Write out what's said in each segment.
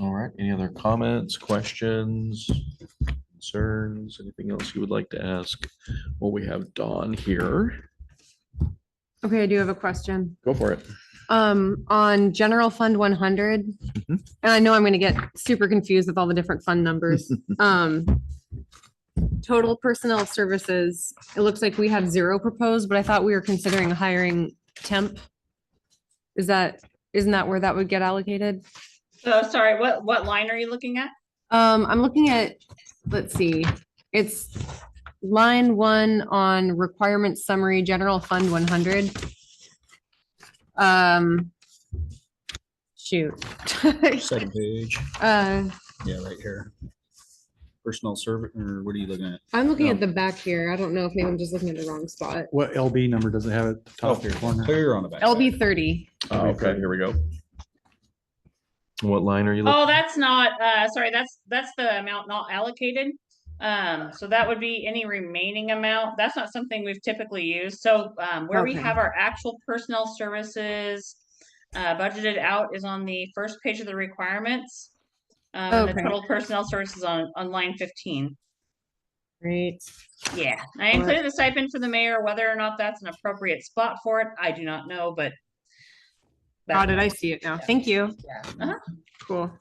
All right, any other comments, questions, concerns, anything else you would like to ask? Well, we have Dawn here. Okay, I do have a question. Go for it. Um, on general fund one hundred, and I know I'm gonna get super confused with all the different fund numbers. Um, total personnel services, it looks like we have zero proposed, but I thought we were considering hiring temp. Is that, isn't that where that would get allocated? So sorry, what, what line are you looking at? Um, I'm looking at, let's see, it's line one on requirement summary, general fund one hundred. Um, shoot. Second page, Uh, yeah, right here. Personal servant, or what are you looking at? I'm looking at the back here. I don't know if maybe I'm just looking at the wrong spot. What LB number does it have at the top Oh, here corner? Clear on the back. LB thirty. Oh, Okay, here we go. What line are you looking? Oh, that's not, uh, sorry, that's, that's the amount not allocated. Um, so that would be any remaining amount. That's not something we've typically used. So, um, where we Okay. have our actual personnel services uh, budgeted out is on the first page of the requirements. Um, and the Okay. total personnel services on, on line fifteen. Great. Yeah, I Alright. included the stipend for the mayor, whether or not that's an appropriate spot for it, I do not know, but. but- How did I see it now? Thank you. Uh-huh. Cool.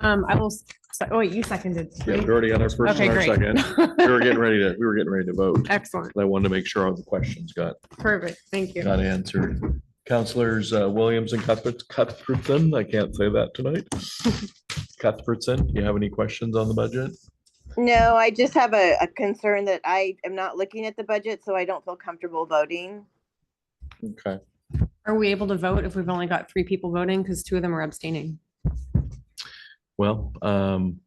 Um, I will, s- se- oh, wait, you seconded. Yeah, we right? already got our first Okay, and our great. second. We were getting ready to, we were getting ready to vote. Excellent. I wanted to make sure all the questions got, Perfect. Thank you. got answered. Counselors uh, Williams and Cuthbert, Cuthbertson, I can't say that tonight. Cuthbertson, you have any questions on the budget? No, I just have a, a concern that I am not looking at the budget, so I don't feel comfortable voting. Okay, Are we able to vote if we've only got three people voting? Because two of them are abstaining. well, um,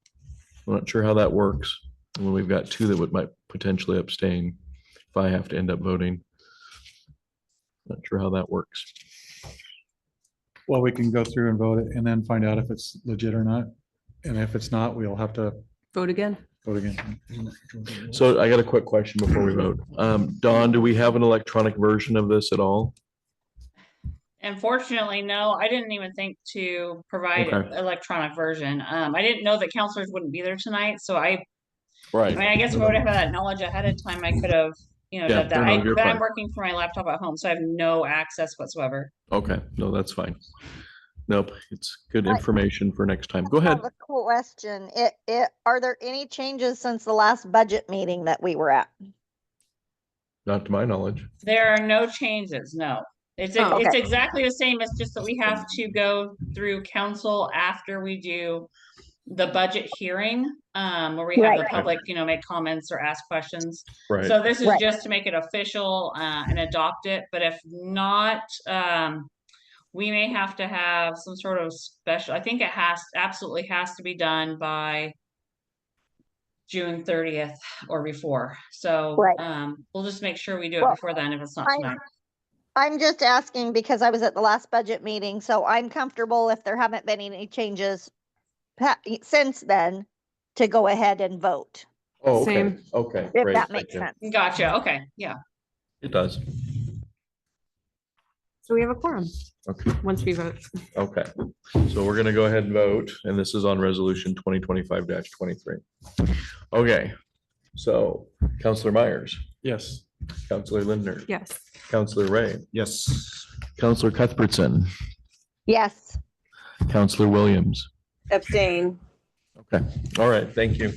I'm not sure how that works. When we've got two that would, might potentially abstain if I have to end up voting. Not sure how that works. Well, we can go through and vote it and then find out if it's legit or not. And if it's not, we'll have to Vote again. vote again. So I got a quick question before we vote. Um, Don, do we have an electronic version of this at all? Unfortunately, no, I didn't even think to provide Okay. electronic version. Um, I didn't know that counselors wouldn't be there tonight, so I, I mean, Right. I guess if I would have had that knowledge ahead of time, I could have, you know, Yeah, done no, that. no, I, you're but I'm fine. working from my laptop at home, so I have no access whatsoever. Okay, no, that's fine. Nope, it's good information for next time. Go ahead. have a question. It, it, are there any changes since the last budget meeting that we were at? Not to my knowledge. There are no changes, no. It's, Oh, it's okay. exactly the same, it's just that we have to go through council after we do the budget hearing, um, where we have Right. the public, you know, make comments or ask questions. Right. So this is Right. just to make it official, uh, and adopt it, but if not, um, we may have to have some sort of special, I think it has, absolutely has to be done by June thirtieth or before, so, Right. um, we'll just make sure we do it Well, before then if it's not I- tonight. I'm just asking because I was at the last budget meeting, so I'm comfortable if there haven't been any changes pa- since then to go ahead and vote, Oh, okay, Same. okay. if great, that thank makes you. sense. Gotcha, okay, yeah. It does. So we have a quorum Okay, once we vote. okay. So we're gonna go ahead and vote, and this is on resolution twenty twenty-five twenty-three. Okay, so Counselor Myers, Yes. Counselor Lindner, Yes. Counselor Ray, Yes. Counselor Cuthbertson, Yes. Counselor Williams. Abstain. Okay, all right, thank you.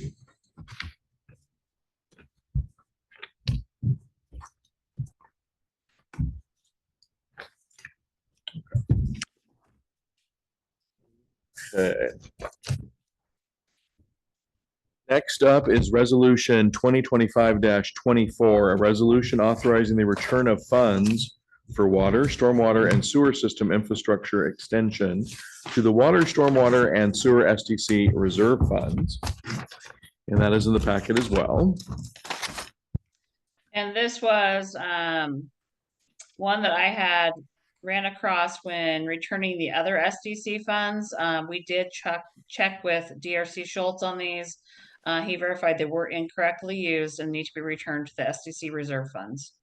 Okay. Next up is Resolution twenty twenty-five twenty-four, a resolution authorizing the return of funds for water, stormwater, and sewer system infrastructure extension to the Water, Stormwater, and Sewer SDC Reserve Funds. And that is in the packet as well. And this was um one that I had ran across when returning the other SDC funds. Um, we did check check with DRC Schultz on these. Uh, he verified they were incorrectly used and need to be returned to the SDC reserve funds.